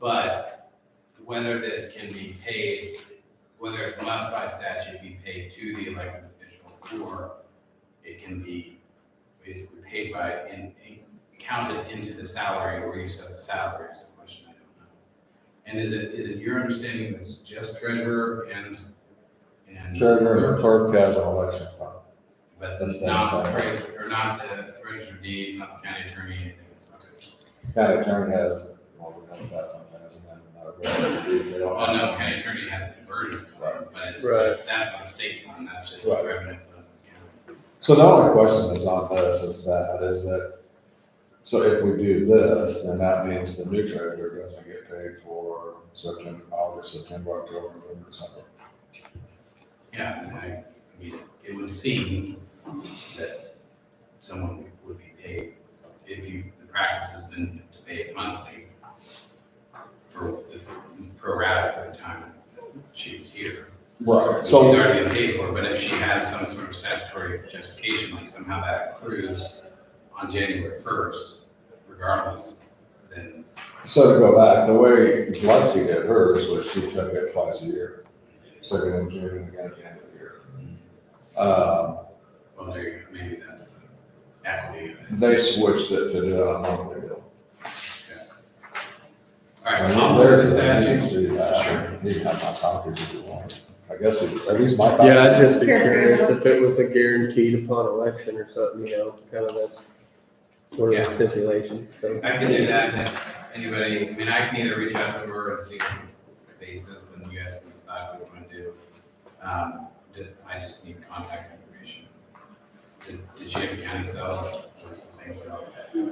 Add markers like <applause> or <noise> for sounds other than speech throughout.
But whether this can be paid, whether it must by statute be paid to the elected official or it can be basically paid by and counted into the salary or you set the salary is the question, I don't know. And is it, is it your understanding that it's just treasurer and, and? Treasurer and clerk has an election fund. But That's the not the inside. treasurer, or not the register of deeds, not the county attorney, anything, it's not. County attorney has, well, we don't have that one, that's another. They don't Well, Oh, no, have- county attorney has the version, Right. but Right. that's not a state fund, that's just the Right. revenue fund. of So the only question that's on this is that, is that, so if we do this, then that means the new treasurer doesn't get paid for September, August, September, October, November, December. the county. Yeah, and I, I mean, it would seem that someone would be paid, if you, the practice has been to pay it monthly for the pro rata for the time that she was here. Right, She's so, already been paid for, but if she has some sort of statutory justification, like somehow that accrues on January first, regardless, then so to go back, the way Lexi did hers was she took it twice a year. So it in June and again at the end of the year. Um, Well, there, you go. maybe that's the equity of it. they switched it to do it on a monthly bill. All right, And Tom, there's- there's you can that. see Sure. that. uh, You can have my copies if you want. I guess, it- at least my. Yeah, copies. I'd just be curious if it was a guaranteed upon election or something, you know, kind of that's one of Yeah. the stipulations, so. I can do that, and if anybody, I mean, I can either reach out to her and see the basis, and you guys can decide what you want to do. Um, did- I just need contact information. Did, did she have a county cell, or the same cell? Yeah,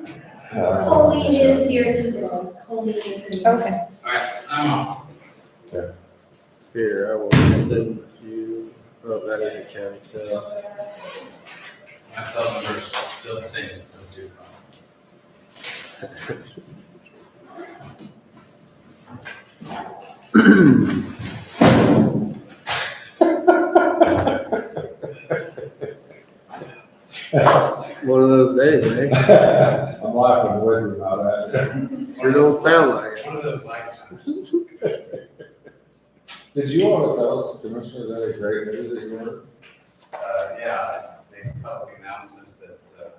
I don't know. Colleen is here today. Colleen is in. Okay. All right, I'm off. Here, I will send you, oh, that is a county, so. My cell number is still the same as it was due. One of those days, eh? <laughs> I'm laughing with you about that. Sure don't sound like it. One of those lifetimes. Did you want to tell us, Commissioner, that a great news that you heard? Uh, yeah, the public announcement that,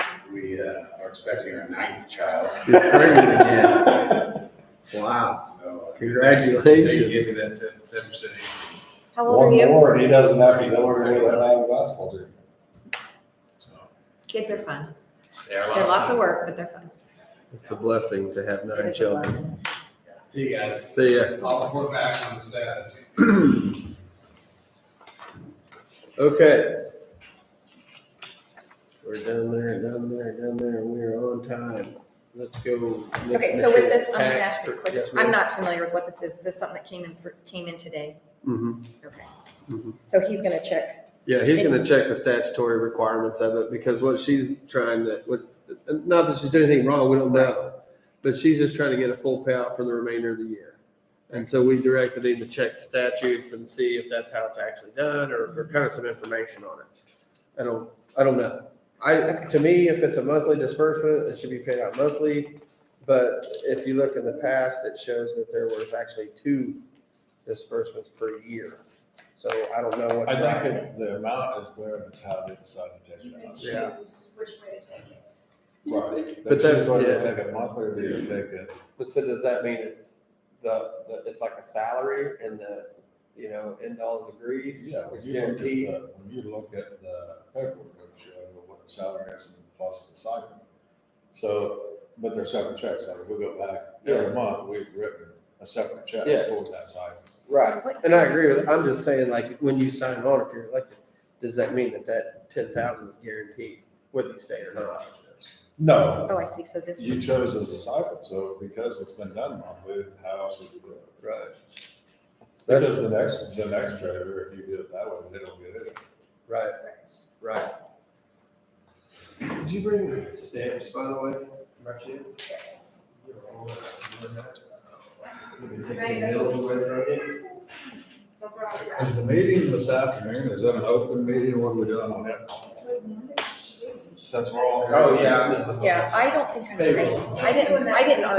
uh, we, uh, are expecting our ninth child, You're pregnant again. Wow, so. uh, They congratulations. give you that seven, seven percent increase, How old <laughs> are One you? more, and he doesn't have to go over to that nine basketball team. so. Kids are fun. They are a lot They're lots of fun. work, but they're fun. It's a blessing to have nine It's a children. blessing. See you guys. See ya. I'll report back on the status. <clears throat> Okay. We're done there, done there, done there, and we are on time. Let's go. Okay, so with this, I'm just gonna Tax ask you a for- question. yes, I'm ma'am. not familiar with what this is. Is this something that came in, thr- came in today? Mhm. Okay. Mhm. So he's gonna check. Yeah, he's gonna check the statutory requirements of it, because what she's trying to, what, not that she's doing anything wrong, we don't know. But she's just trying to get a full payout for the remainder of the year. And so we directed him to check statutes and see if that's how it's actually done, or, or kind of some information on it. I don't, I don't know. I, to me, if it's a monthly disbursement, it should be paid out monthly. But if you look in the past, it shows that there was actually two disbursements per year. So I don't know what's. I right. think it- the amount is there, it's how they decide to take You it can out. choose which way to take it. Right. But But that's- that's whether yeah. they take it monthly or do they take it, But so does that mean it's the, the it's like a salary and the, you know, end all is agreed? yeah, when It's you look at guaranteed. the, when you look at the paperwork, it'll show what the salary is and plus the stipend. So, but they're separate checks, like we go back every month, we've written a separate check Yes. for that stipend. Right, So what and I year agree is with, I'm this? just saying like, when you sign on, if you're elected, does that mean that that ten thousand is guaranteed, whether you stay or not? No, Oh, I see. So this You is, chose as a stipend, so because it's been done monthly, how else would you do it? Right. Because the next, the next driver, if you do it that way, they don't get it. Right, right. Did you bring stamps, by the way, Is the meeting this afternoon, is that an open meeting, what are we doing on that? Since we're all. Oh, yeah. yeah, I don't think I'm Maybe. saying, I didn't, I didn't